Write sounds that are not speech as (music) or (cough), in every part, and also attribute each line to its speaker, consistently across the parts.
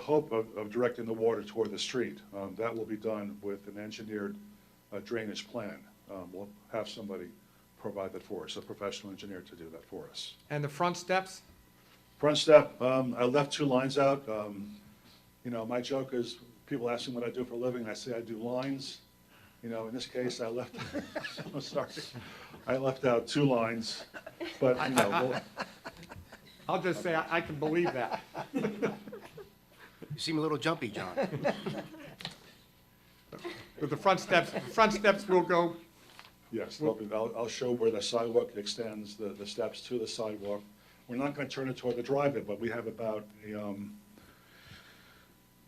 Speaker 1: hope of, of directing the water toward the street. Um, That will be done with an engineered uh, drainage plan. Um, We'll have somebody provide that for us, a professional engineer to do that for us.
Speaker 2: And the front steps?
Speaker 1: Front step, um, I left two lines out. Um, you know, my joke is, people ask me what I do for a living, I say I do lines. You know, in this case, I left, (laughs) I'm sorry, I left out two lines, but, you know, we'll-
Speaker 2: I'll just say, I I can believe that.
Speaker 3: You seem a little jumpy, John.
Speaker 2: But the front steps, the front steps will go,
Speaker 1: yes, they'll be- I'll, I'll show where the sidewalk extends, the, the steps to the sidewalk. We're not gonna turn it toward the driveway, but we have about, a, um,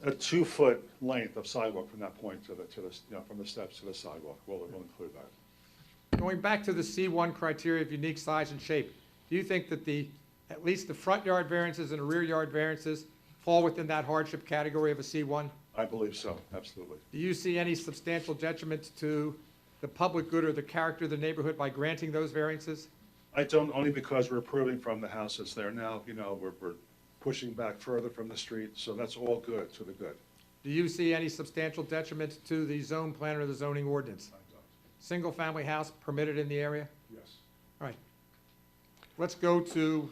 Speaker 1: a two-foot length of sidewalk from that point to the, to the, you know, from the steps to the sidewalk. We'll, we'll include that.
Speaker 2: going back to the C1 criteria of unique size and shape, do you think that the, at least the front yard variances and the rear yard variances fall within that hardship category of a C1?
Speaker 1: I believe so, absolutely.
Speaker 2: Do you see any substantial detriment to the public good or the character of the neighborhood by granting those variances?
Speaker 1: I don't, only because we're approving from the house that's there now, you know, we're, we're pushing back further from the street, so that's all good, to the good.
Speaker 2: Do you see any substantial detriment to the zone plan or the zoning ordinance? Single-family house permitted in the area?
Speaker 1: Yes.
Speaker 2: All right. Let's go to,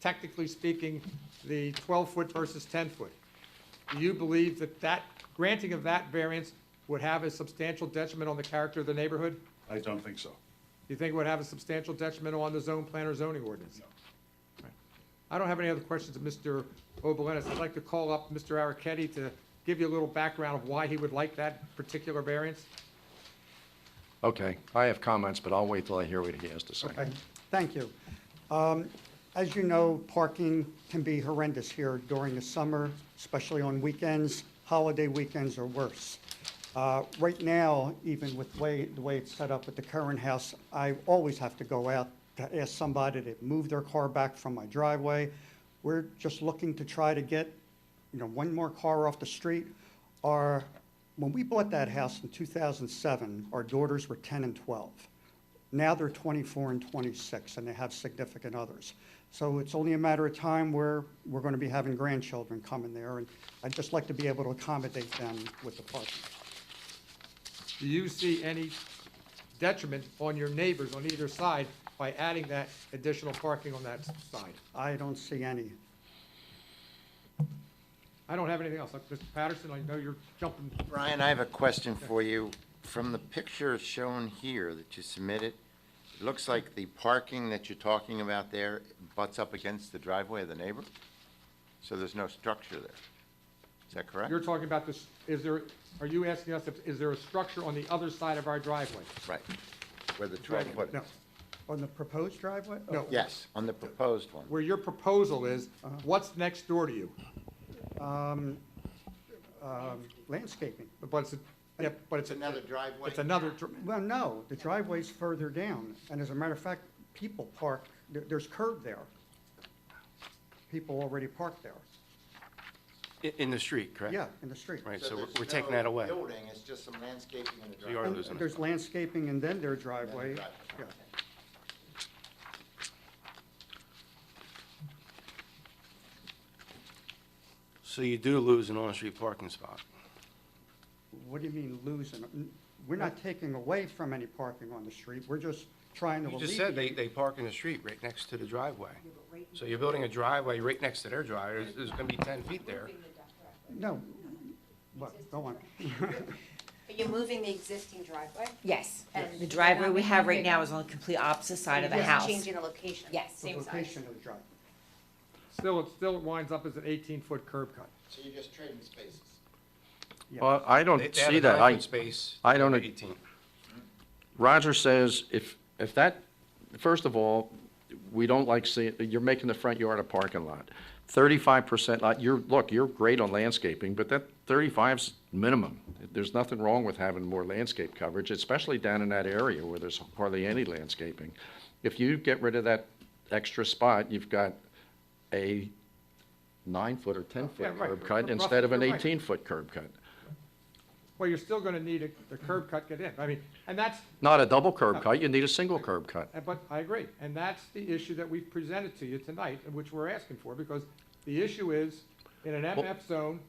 Speaker 2: technically speaking, the 12-foot versus 10-foot. Do you believe that that, granting of that variance would have a substantial detriment on the character of the neighborhood? Do
Speaker 1: I don't think so.
Speaker 2: you think it would have a substantial detriment on the zone plan or zoning ordinance? All right. I don't have any other questions of Mr. Obolenz. I'd like to call up Mr. Araketti to give you a little background of why he would like that particular variance.
Speaker 3: (laughs) Okay, I have comments, but I'll wait till I hear what he has to say.
Speaker 4: Okay, thank you. Um, As you know, parking can be horrendous here during the summer, especially on weekends. Holiday weekends are worse. Uh, Right now, even with way, the way it's set up with the current house, I always have to go out to ask somebody to move their car back from my driveway. We're just looking to try to get, you know, one more car off the street. Our, when we bought that house in 2007, our daughters were 10 and 12. Now they're 24 and 26, and they have significant others. So it's only a matter of time where we're going to be having grandchildren come in there, and I'd just like to be able to accommodate them with the parking.
Speaker 2: Do you see any detriment on your neighbors on either side by adding that additional parking on that side?
Speaker 4: I don't see any.
Speaker 2: I don't have anything else. Like, Mr. Patterson, I know you're jumping.
Speaker 5: Brian, I have a question for you. From the picture shown here that you submitted, it looks like the parking that you're talking about there butts up against the driveway of the neighbor? So there's no structure there. Is that correct?
Speaker 2: You're talking about this, is there, are you asking us if, is there a structure on the other side of our driveway?
Speaker 5: Right. Where the 12 foot
Speaker 2: No.
Speaker 5: is?
Speaker 4: On the proposed driveway?
Speaker 2: No.
Speaker 5: Yes, on the proposed one.
Speaker 2: Where your proposal is, what's next door to you?
Speaker 4: Um, Landscaping.
Speaker 2: But it's, a- yeah, but it's,
Speaker 5: It's
Speaker 2: a-
Speaker 5: another driveway?
Speaker 2: it's another, dr-
Speaker 4: Well, no, the driveway's further down, and as a matter of fact, people park, there- there's curb there. People already park there.
Speaker 3: In, in the street, correct?
Speaker 4: Yeah, in the street.
Speaker 3: Right, so we're
Speaker 5: there's
Speaker 3: we're taking
Speaker 5: no
Speaker 3: that away.
Speaker 5: Building, it's just some landscaping in the
Speaker 3: you are
Speaker 5: driveway.
Speaker 4: And
Speaker 3: losing it.
Speaker 4: There's landscaping and then their driveway.
Speaker 5: driveway.
Speaker 4: Yeah.
Speaker 3: So you do lose an on-street parking spot.
Speaker 4: What do you mean losing? N- We're not taking away from any parking on the street, we're just trying to
Speaker 3: You just said
Speaker 4: alleviate.
Speaker 3: they, they park in the street right next to the driveway. So you're building a driveway right next to their driveway, There's- there's gonna be ten feet there.
Speaker 4: No, what, go on.
Speaker 6: But you're moving the existing driveway?
Speaker 7: Yes,
Speaker 6: And
Speaker 7: the driveway we have right
Speaker 6: nothing
Speaker 7: now is on the complete opposite side of the
Speaker 6: Just
Speaker 7: house.
Speaker 6: Changing the location?
Speaker 7: Yes.
Speaker 4: The
Speaker 6: Same size?
Speaker 4: location of the driveway.
Speaker 2: still, it still winds up as an eighteen-foot curb cut.
Speaker 5: So you're just trading spaces?
Speaker 8: Well, I
Speaker 3: They-
Speaker 8: don't
Speaker 3: they have
Speaker 8: see
Speaker 3: a
Speaker 8: that. I,
Speaker 3: conference space,
Speaker 8: I don't-
Speaker 3: Eighteen.
Speaker 8: Roger says if, if that, first of all, we don't like seeing, you're making the front yard a parking lot. Thirty-five percent lot, you're, look, you're great on landscaping, but that 35's minimum. There's nothing wrong with having more landscape coverage, especially down in that area where there's hardly any landscaping. If you get rid of that extra spot, you've got a nine-foot or
Speaker 2: Yeah,
Speaker 8: ten-foot
Speaker 2: right.
Speaker 8: curb cut
Speaker 2: Roughly,
Speaker 8: instead of an
Speaker 2: you're right.
Speaker 8: eighteen-foot curb cut.
Speaker 2: Well, you're still gonna need a, the curb cut get in. I mean, and that's,
Speaker 8: Not a double curb cut, you need a single curb cut.
Speaker 2: Uh, But I agree, and that's the issue that we've presented to you tonight, and which we're asking for, because the issue is, in an MF zone,